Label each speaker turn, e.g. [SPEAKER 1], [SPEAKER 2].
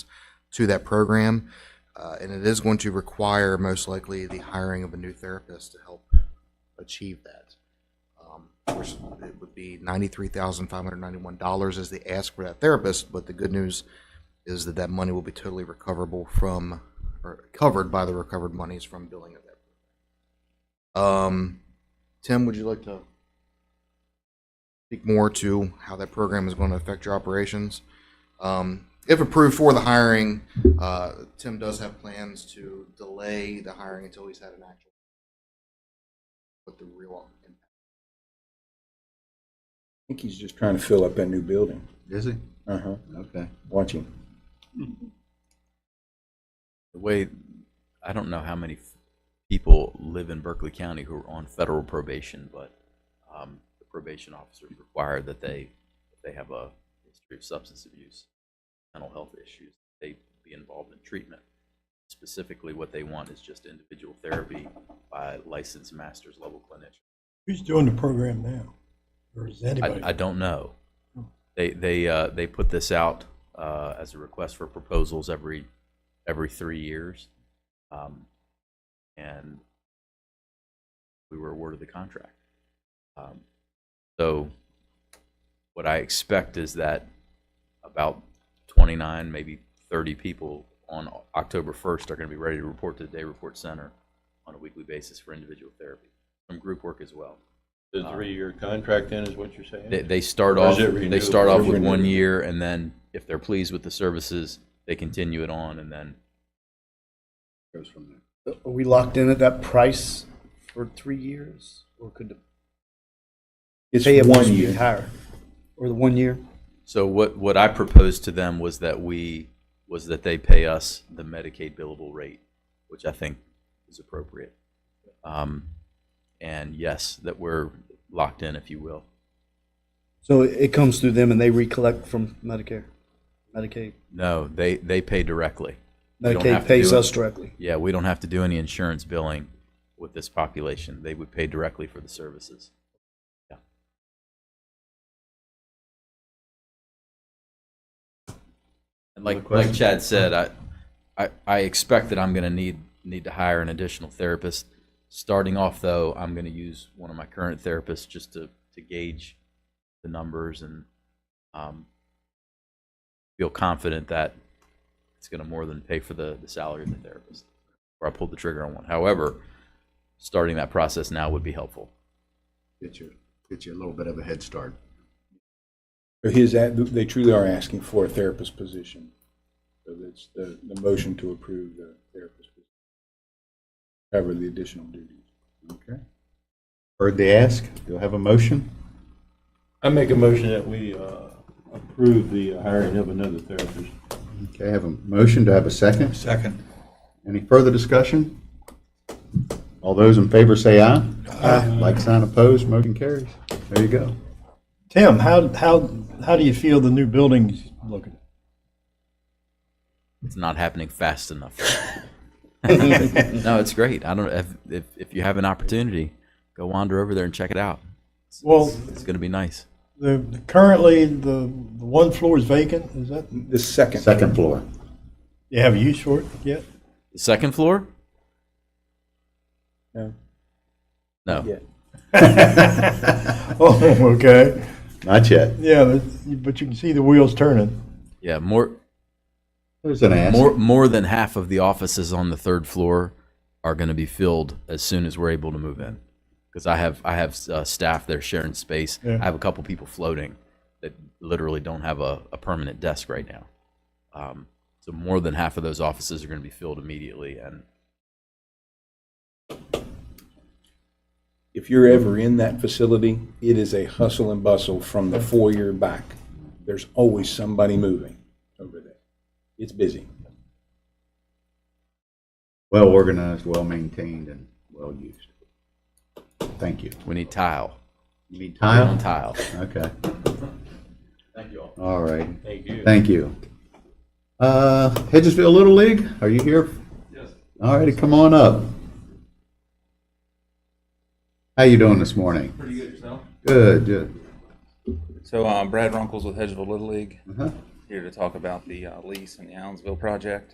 [SPEAKER 1] to that program. Uh, and it is going to require most likely the hiring of a new therapist to help achieve that. Um, of course, it would be ninety-three thousand five hundred ninety-one dollars as the ask for that therapist, but the good news is that that money will be totally recoverable from, or covered by the recovered monies from billing of that. Um, Tim, would you like to speak more to how that program is going to affect your operations? Um, if approved for the hiring, uh, Tim does have plans to delay the hiring until he's had an actual what the real impact.
[SPEAKER 2] I think he's just trying to fill up that new building.
[SPEAKER 3] Is he?
[SPEAKER 2] Uh-huh,
[SPEAKER 3] Okay.
[SPEAKER 2] watch him.
[SPEAKER 4] the way I don't know how many f- people live in Berkeley County who are on federal probation, but um, the probation officers require that they if they have a history of substance abuse, mental health issues, they be involved in treatment. Specifically, what they want is just individual therapy by licensed master's level clinician.
[SPEAKER 5] Who's doing the program now? Or is anybody?
[SPEAKER 4] I, I don't know. They, they, uh, they put this out, uh, as a request for proposals every, every three years. Um, and we were awarded the contract. Um, So what I expect is that about twenty-nine, maybe thirty people on October first are gonna be ready to report to the Day Report Center on a weekly basis for individual therapy, some group work as well.
[SPEAKER 3] The three-year contract then is what you're saying?
[SPEAKER 4] They, they start
[SPEAKER 3] Or is
[SPEAKER 4] off,
[SPEAKER 3] it
[SPEAKER 4] they start
[SPEAKER 3] renewable?
[SPEAKER 4] off with one year, and then if they're pleased with the services, they continue it on, and then
[SPEAKER 3] Goes from there.
[SPEAKER 6] Are we locked in at that price for three years, or could the
[SPEAKER 2] It's
[SPEAKER 6] pay
[SPEAKER 2] one
[SPEAKER 6] one be
[SPEAKER 2] year.
[SPEAKER 6] higher? Or the one year?
[SPEAKER 4] So what, what I proposed to them was that we, was that they pay us the Medicaid billable rate, which I think is appropriate. Um, And yes, that we're locked in, if you will.
[SPEAKER 6] So it it comes through them and they recollect from Medicare, Medicaid.
[SPEAKER 4] No, they, they pay directly. We don't have to
[SPEAKER 6] Medicaid pays
[SPEAKER 4] do it.
[SPEAKER 6] us directly.
[SPEAKER 4] Yeah, we don't have to do any insurance billing with this population. They would pay directly for the services. And like, like Chad said, I, I, I expect that I'm gonna need, need to hire an additional therapist. Starting off though, I'm gonna use one of my current therapists just to, to gauge the numbers and, um, feel confident that it's gonna more than pay for the, the salary of the therapist. Or I pulled the trigger on one. However, starting that process now would be helpful.
[SPEAKER 3] Get you, get you a little bit of a head start.
[SPEAKER 2] But his, ad- they truly are asking for a therapist position. So that's the, the motion to approve the therapist position. Cover the additional duties.
[SPEAKER 3] Okay. Heard the ask. Do I have a motion?
[SPEAKER 7] I make a motion that we uh, approve the hiring of another therapist.
[SPEAKER 3] Okay, I have a motion. Do I have a second? Second. Any further discussion? All those in favor say aye. Aye. Like sign opposed, motion carries. There you go.
[SPEAKER 5] Tim, how, how, how do you feel the new building's looking?
[SPEAKER 4] it's not happening fast enough. no, it's great. I don't if, if if you have an opportunity, go wander over there and check it out. It's,
[SPEAKER 5] Well-
[SPEAKER 4] it's, it's going to be nice.
[SPEAKER 5] The, currently, the, the one floor is vacant, is that,
[SPEAKER 2] The second.
[SPEAKER 3] Second floor.
[SPEAKER 5] you have a use for it yet?
[SPEAKER 4] The second floor?
[SPEAKER 2] No.
[SPEAKER 4] No.
[SPEAKER 2] Yeah.
[SPEAKER 5] Oh, okay.
[SPEAKER 3] Not yet.
[SPEAKER 5] Yeah, but, but you can see the wheels turning.
[SPEAKER 4] Yeah, more
[SPEAKER 3] There's an ask.
[SPEAKER 4] more more than half of the offices on the third floor are going to be filled as soon as we're able to move in. Because I have I have uh, staff there sharing space.
[SPEAKER 5] Yeah.
[SPEAKER 4] I have a couple people floating that literally don't have a, a permanent desk right now. Um, so more than half of those offices are going to be filled immediately, and
[SPEAKER 2] If you're ever in that facility, it is a hustle and bustle from the foyer back. There's always somebody moving over there. It's busy.
[SPEAKER 3] Well organized, well maintained, and well used. Thank you.
[SPEAKER 4] we need tile.
[SPEAKER 3] You need
[SPEAKER 4] We're On
[SPEAKER 3] tile?
[SPEAKER 4] tile.
[SPEAKER 3] Okay.
[SPEAKER 7] Thank you all.
[SPEAKER 3] All right.
[SPEAKER 7] Thank you.
[SPEAKER 3] Thank you. Uh, Hedgesville Little League, are you here?
[SPEAKER 7] Yes.
[SPEAKER 3] All righty, come on up. How you doing this morning?
[SPEAKER 7] Pretty good yourself?
[SPEAKER 3] Good, good.
[SPEAKER 8] So um, Brad Runkles with Hedgeville Little League.
[SPEAKER 3] Uh-huh.
[SPEAKER 8] here to talk about the uh, lease and the Allensville project.